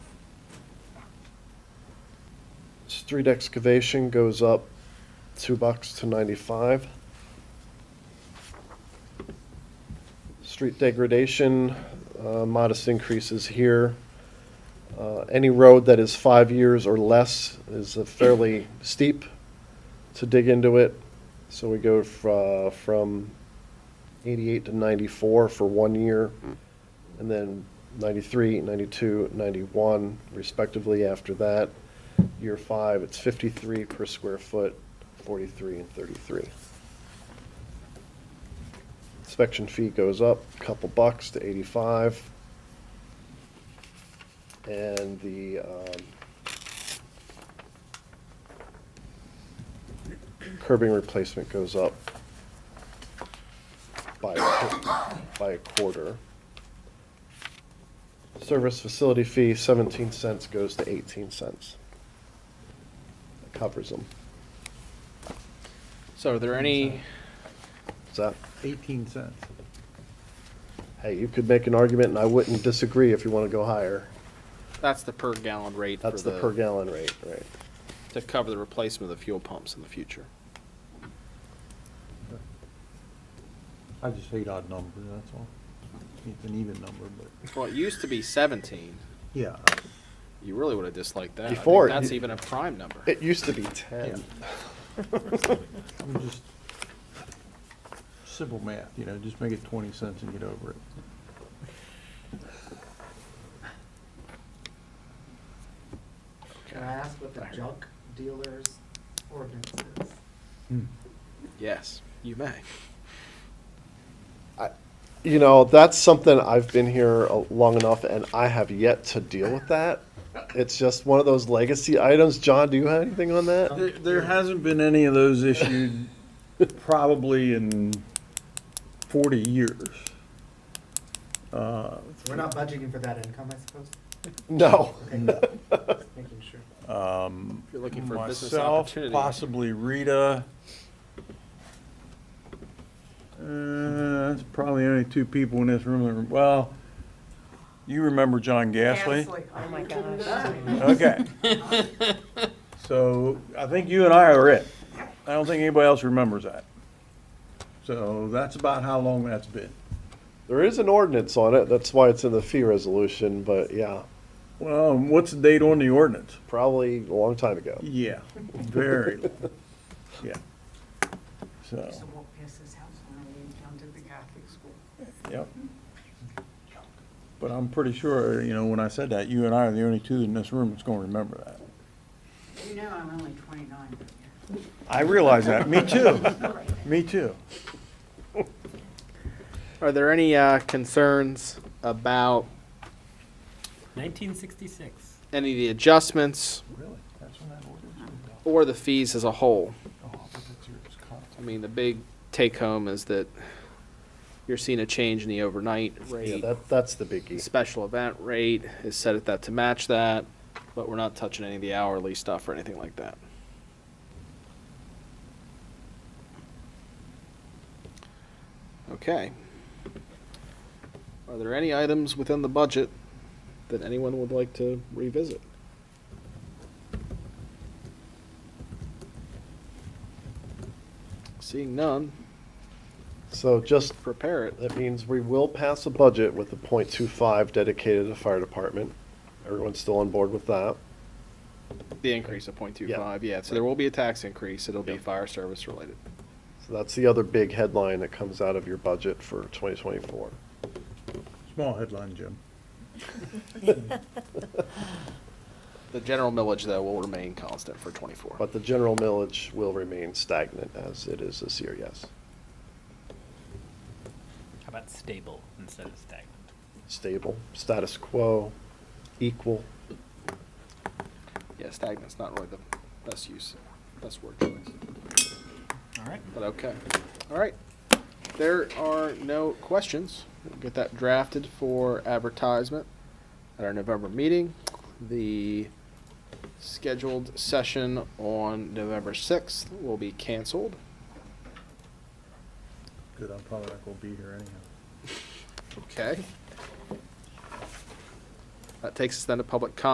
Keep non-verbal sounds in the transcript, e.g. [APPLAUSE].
street excavation goes up two bucks to ninety-five. Street degradation, uh, modest increases here. Uh, Any road that is five years or less is a fairly steep to dig into it. So we go fr- uh, from eighty-eight to ninety-four for one year, and then ninety-three, ninety-two, ninety-one respectively after that. Year five, it's fifty-three per square foot, forty-three and thirty-three. Inspection fee goes up a couple bucks to eighty-five. And the, um, curbing replacement goes up by, a- by a quarter. Service facility fee, seventeen cents goes to eighteen cents. That Covers them. So are there any, Is that, 18 cents. hey, you could make an argument and I wouldn't disagree if you want to go higher. that's the per gallon rate for That's the per the, gallon rate, right? to cover the replacement of the fuel pumps in the future. I just hate odd numbers, that's all. It's an even number, but, Well, it used to be seventeen. yeah. You really would have disliked that. I think Before, That's you- even a prime number. It used to be ten. I'm just, simple math, you know, just make it 20 cents and get over it. Can I ask what the junk dealer's ordinance is? Yes, you may. [LAUGHS] You know, that's something I've been here uh, long enough and I have yet to deal with that. It's just one of those legacy items. John, do you have anything on that? There, there hasn't been any of those [LAUGHS] issued probably in 40 years. Uh, We're not budgeting for that income, I suppose? No. Okay, just making sure. If you're looking for a business Myself, opportunity. possibly Rita. Uh, That's probably only two people in this room. that rem- Well, you remember John Gasly? oh my gosh. Okay. So I think you and I are it. I don't think anybody else remembers that. So that's about how long that's been. There is an ordinance on it. That's why it's in the fee resolution, but yeah, Well, and what's the date on the ordinance? probably a long time ago. Yeah, very [LAUGHS] long. Yeah. So, used to walk past his house when I went down to the Catholic school. yep. But I'm pretty sure, you know, when I said that, you and I are the only two in this room that's gonna remember that. You know, I'm only twenty-nine, but yeah. I realize that. Me [LAUGHS] too. Me too. Are there any, uh, concerns about 1966. any of the adjustments Really? That's when that ordinance was or the fees as a whole? adopted? Oh, but that's your contact. I mean, the big take home is that you're seeing a change in the overnight Yeah, rate. that, that's the The biggie. special event rate is set at that to match that, but we're not touching any of the hourly stuff or anything like that. Okay. Are there any items within the budget that anyone would like to revisit? Seeing none, So just, prepare it. that means we will pass a budget with a point two five dedicated to the fire department. Everyone's still on board with that. The increase of point two five, yeah, so there will be a tax increase, it'll be Yeah. fire service related. So that's the other big headline that comes out of your budget for twenty twenty-four. Small headline, Jim. The general millage, though, will remain constant for twenty-four. But the general millage will remain stagnant as it is this year, yes. How about stable instead of stagnant? Stable, status quo, equal. Yeah, stagnant's not really the best use, best word choice, All right. but okay. All right, there are no questions. We'll Get that drafted for advertisement at our November meeting. The scheduled session on November sixth will be canceled. Good, I'm probably not gonna be here anyhow. Okay. That takes us then to public comment.